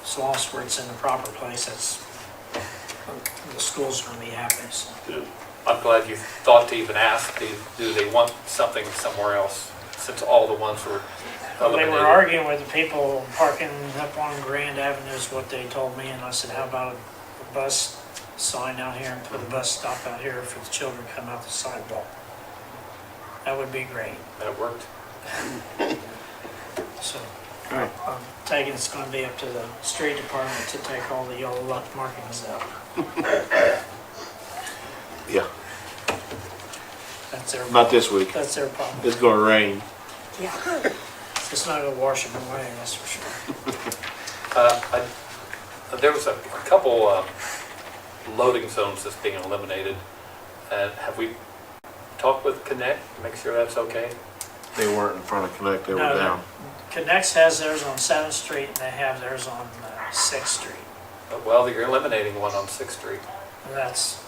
it's lost where it's in the proper place, that's, the school's gonna be happy, so. I'm glad you thought to even ask, do do they want something somewhere else, since all the ones were They were eliminated? arguing with the people parking up on Grand Avenue is what they told me, and I said, how about a bus sign out here and put a bus stop out here for the children to come out the sidewalk? That would be great, That worked. so. Alright. I'm taking it's gonna be up to the street department to take all the yellow lot markings out. Yeah, That's their, not this week. that's their problem. It's gonna rain. It's not gonna wash them away, that's for sure. Uh, I- There was a a couple um, loading zones that's being eliminated, and have we talked with Connect, to make sure that's okay? They weren't in front of Connect, they were No, no. down. Connects has theirs on Seventh Street and they have theirs on uh, Sixth Street. Uh, Well, you're eliminating one on Sixth Street. And that's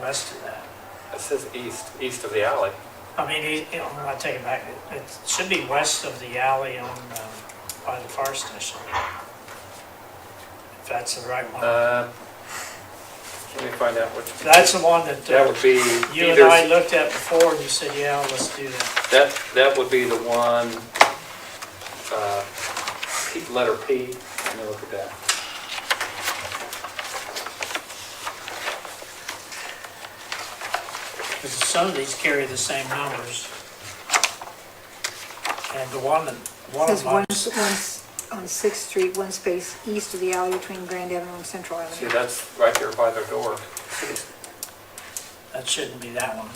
west of that. It says east, east of the alley. I mean, he- he- I'm gonna take it back, It- it should be west of the alley on, um, by the fire station. If that's the right one. Uh, Let me find out which. That's the one that That uh, would be you and I either, looked at before and you said, yeah, let's do that. that, that would be the one, uh, P- letter P, let me look at that. Because some of these carry the same numbers. And the one that, one Says of one, mine, one's on Sixth Street, one space east of the alley between Grand Avenue and Central See, Avenue. that's right there by their door. that shouldn't be that one.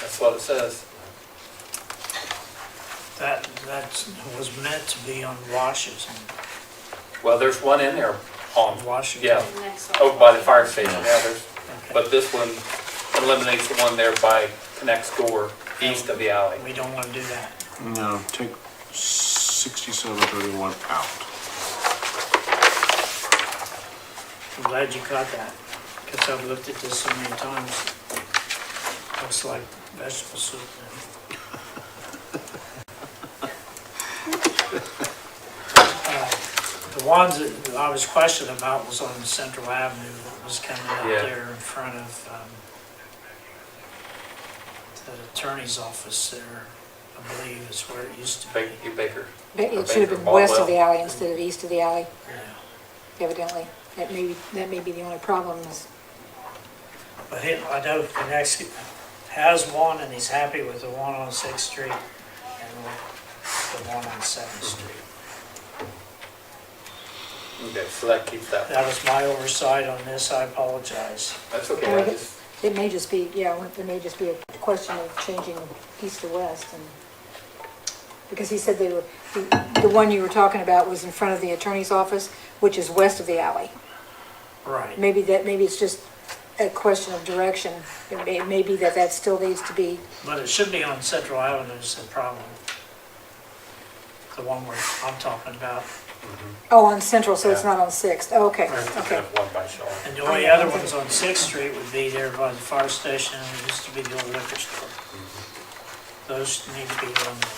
That's what it says. That, that was meant to be on Washington. Well, there's one in there on, Washington. yeah, over by the fire station, yeah, there's, Okay. but this one eliminates the one there by Connect's door, east of the alley. We don't want to do that. No, take sixty-seven thirty-one out. I'm glad you caught that, because I've looked at this so many times. Looks like vegetable soup now. Uh, The ones that I was questioning about was on Central Avenue, what was coming Yeah. out there in front of um, the attorney's office there, I believe is where it used to be. Ba- you Baker, But or it should have been Baker west of Caldwell. the alley instead of east of the alley, Yeah. evidently. That may, be- that may be the only problem is, But he, I know the next has one and he's happy with the one on Sixth Street and the one on Seventh Street. okay, so that keeps that. That was my oversight on this, I apologize. That's okay, I just, it may just be, yeah, it may just be a question of changing east to west and, because he said they were, the, the one you were talking about was in front of the attorney's office, which is west of the alley. Right. Maybe that, maybe it's just a question of direction. It may, it may be that that still needs to be But it should be on Central Avenue is the problem. The one where I'm talking about. Oh, on Central, so it's Yeah. not on Sixth. Oh, okay, kind okay. of one by Shaw. And the only other ones on Sixth Street would be there by the fire station and it used to be the old liquor store. Those need to be eliminated.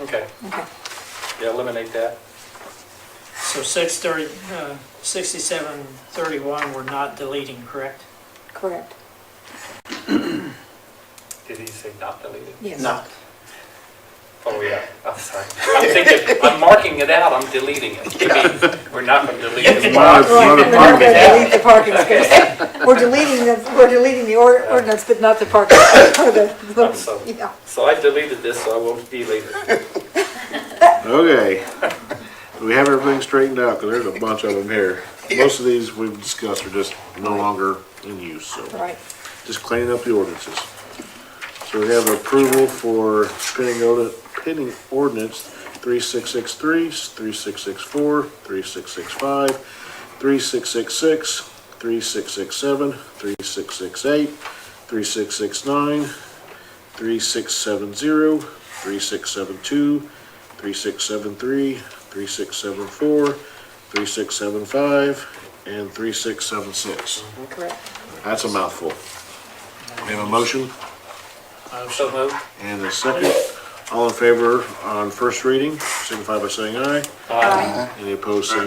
Okay, Okay. yeah, eliminate that. So six thirty, uh, sixty-seven thirty-one, we're not deleting, correct? Correct. Did he say not deleted? Yes. Oh, yeah, I'm sorry. I'm thinking, I'm marking it out, I'm deleting it. You mean, we're not gonna delete it. Mark, Right, mark we're not it gonna out. delete the parking space. We're deleting the, we're deleting the or- ordinance, but not the parking. or the- I'm so- Yeah. So I deleted this, so I won't delete it. Okay. We have everything straightened out, because there's a bunch of them here. Most of these we've discussed are just no longer in use, so Right. just cleaning up the ordinances. So we have approval for pending ordi- pending ordinance 3663, 3664, 3665, 3666, 3667, 3668, 3669, 3670, 3672, 3673, 3674, 3675, and 3676. Correct. That's a mouthful. We have a motion So moved. and a second. All in favor on first reading, signify by saying aye. Aye. Any opposed, say